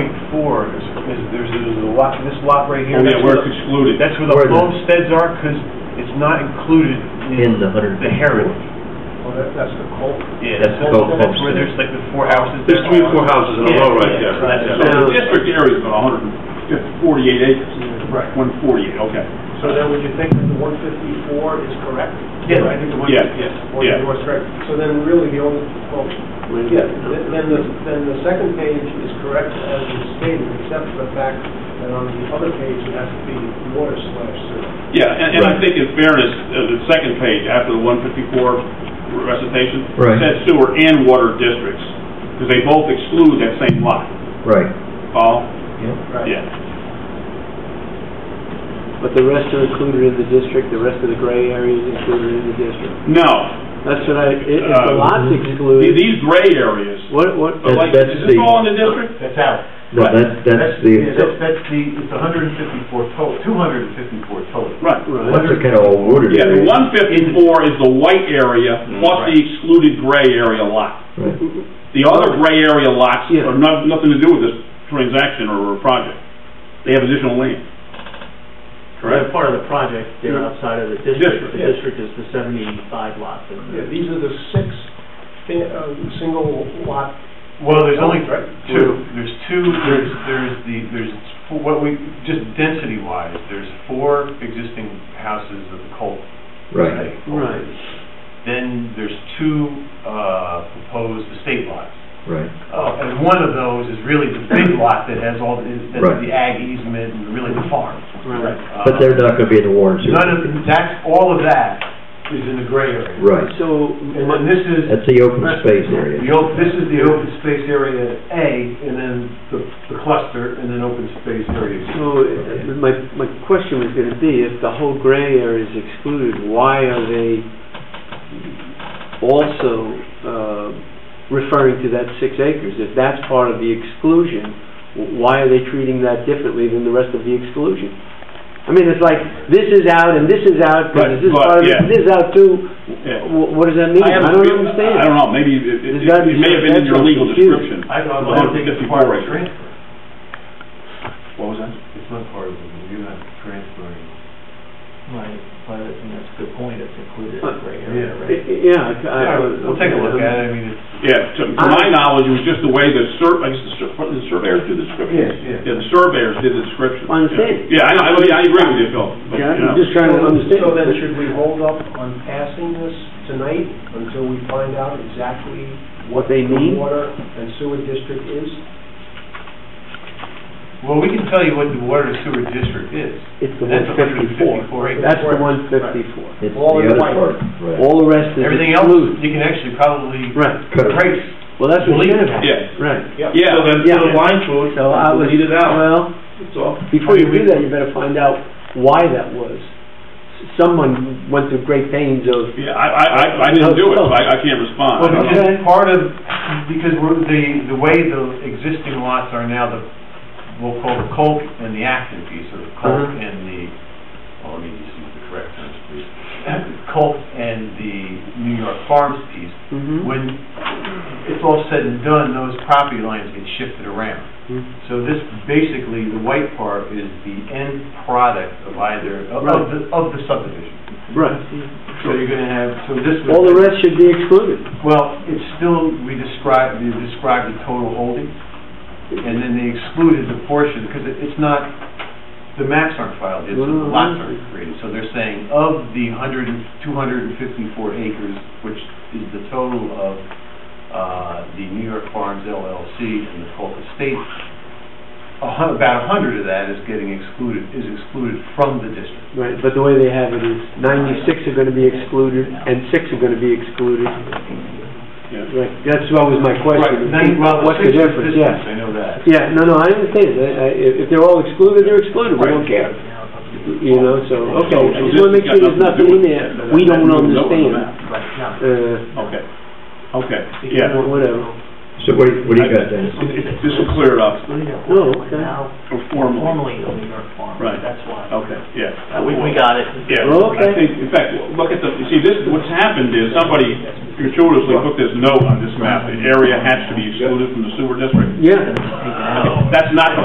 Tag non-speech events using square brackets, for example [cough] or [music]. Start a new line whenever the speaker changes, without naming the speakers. before, is, is there's, there's a lot, this lot right here.
Oh, yeah,
that's where
where it's
the-
excluded.
That's where the
Where the-
homesteads are, because it's not included
in
in
the hundred.
the heritage.
Well, Oh, that, that's the coal.
Yeah,
That's
that's,
the gold
that's where
homestead.
there's like the four houses.
There's three or four houses in a row right
Yeah,
there.
yeah, that's-
So the district area is about 148 acres.
Right.
148, okay.
So then would you think that the one fifty-four is correct?
Yeah.
I think the one
Yeah,
fifty-four
yeah.
is correct. So then really the only, well, yeah, th- then the, then the second page is correct as it's stated, except for the fact that on the other page, it has to be water slash sewer.
Yeah, and, and I
Right.
think in fairness, uh, the second page after the 154 recitation
Right.
says sewer and water districts, because they both exclude that same lot.
Right,
Paul?
yeah.
Yeah.
But the rest are included in the district, the rest of the gray area is included in the district.
No,
That's what I, i- if
Uh,
the lots
The-
excluded,
these gray areas,
what, what,
but like,
that's
is this
the-
all in the district?
That's out.
No,
Right.
that's, that's
yeah, That's,
the,
that's the, it's hundred and fifty-four total, two hundred and fifty-four total.
Right.
that's the kind of all ordered.
Yeah, the 154 is the white area
Right.
plus the excluded gray area lot.
Right.
The other gray area lots
Yeah.
are not, nothing to do with this transaction or project. They have additional land.
They're part of the project, they're
Yeah.
outside of the
District,
district. The
yeah.
district is the 75 lots in the
Yeah, these are the six, fi- uh, single lot.
Well, there's only
Right.
two, there's two, there's, there's the, there's, four- what we, just density-wise, there's four existing houses of the cult.
Right,
right.
Then there's two, uh, proposed estate lots.
right,
Uh, and one of those is really the [laughs] big lot that has all, the- that's
Right.
the ag easement and really the farm.
Right.
Uh,
but they're not gonna be in the warrant.
None of, that's, all of that is in the gray area.
Right,
So,
And then this is,
that's the open space area.
The op this is the open space area A, and then the, the cluster, and then open space area B.
so, uh, my, my question was gonna be, if the whole gray area is excluded, why are they also, uh, referring to that six acres? If that's part of the exclusion, w- why are they treating that differently than the rest of the exclusion? I mean, it's like, this is out and this is out, but is this
Right,
part of,
yeah.
it? this is out too,
Yeah.
Wh- What does that mean?
have
I
a
don't
feel-
understand.
I don't know, maybe it, it-
There's gotta
it
be
may have been in
some-
your
that's
legal
what's confusing.
description.
I don't, I don't think it's
154
part of the
acres.
transfer.
What was that?
It's not part of it, you're not transferring.
Right, but, and that's a good point, it's included in
Uh,
the gray
yeah.
area,
I-
right?
I- Yeah. I- I-
We'll take a look at it, I mean, it's.
Yeah, to, to my knowledge, it was just the way the sur, I guess the sur, what, the surveyors do the description.
Yeah,
Yeah, the surveyors did the description.
I understand.
Yeah, I know, I, yeah, I agree with you, Phil. but,
Yeah,
you know.
I'm just trying to understand.
So then should we hold up on passing this tonight until we find out exactly
What they
the
mean?
water and sewer district is?
Well, we can tell you what the water and sewer district is.
It's the
That's
154.
154 acres.
That's the
It's
154.
the
All in
other
white.
part, right.
All the rest is
Everything else,
excluded.
you can actually probably
Right.
erase.
Well, that's what
Delete.
should have happened.
Yeah.
Right.
Yeah. So then,
so the
line through
So I was, well, before you do that, you better find out why that was. S- Someone went through great pains of,
Yeah, I, I, I- I didn't do it, so I, I can't respond.
Uh-huh.
Well,
I don't-
because
Okay.
part of, because we're, the, the way the existing lots are now, the, we'll call the Colk and the Acton piece, or the Colk
Uh-huh.
and the, oh, let me just use the correct terms, please. Colk and the New York Farms piece,
Mhm.
when it's all said and done, those property lines get shifted around.
Mhm.
So this, basically, the white part is the end product of either, of of the, of the subdivision.
right.
So you're gonna have, so this would.
All the rest should be excluded.
Well, it's still, we described, we described the total holdings, and then they excluded the portion, because it's not, the maps aren't filed yet, so the lots aren't created. So they're saying of the hundred and, two hundred and fifty-four acres, which is the total of, uh, the New York Farms LLC and the Polk Estate, a hun, about a hundred of that is getting excluded, is excluded from the district.
Right, but the way they have it is ninety-six are gonna be excluded and six are gonna be excluded.
Yeah.
Right, that's what was my question.
Right, nine- well,
What's the
six is
difference,
distance,
yeah.
I know that.
Yeah, no, no, I understand, I, I, if if they're all excluded, they're excluded, we
Right.
don't care. You know, so, okay,
So- so
I just
this
wanna make
has
sure
got
there's nothing
to
in
do
there
with that.
we don't
That- that- that-
understand.
Right, yeah.
Uh,
Okay, okay, yeah.
wha- whatever.
So what do you, what do you got, Dennis?
This will clear it up,
No, okay.
Now,
formally,
formerly the New York Farm,
Right.
that's why.
okay, yeah.
Uh, We, we got it.
Yeah, I
Okay.
think, in fact, look at the, you see, this, what's happened is somebody gratuitously put this note on this map, the area has to be excluded from the sewer district.
Uh, Yeah.
That's not the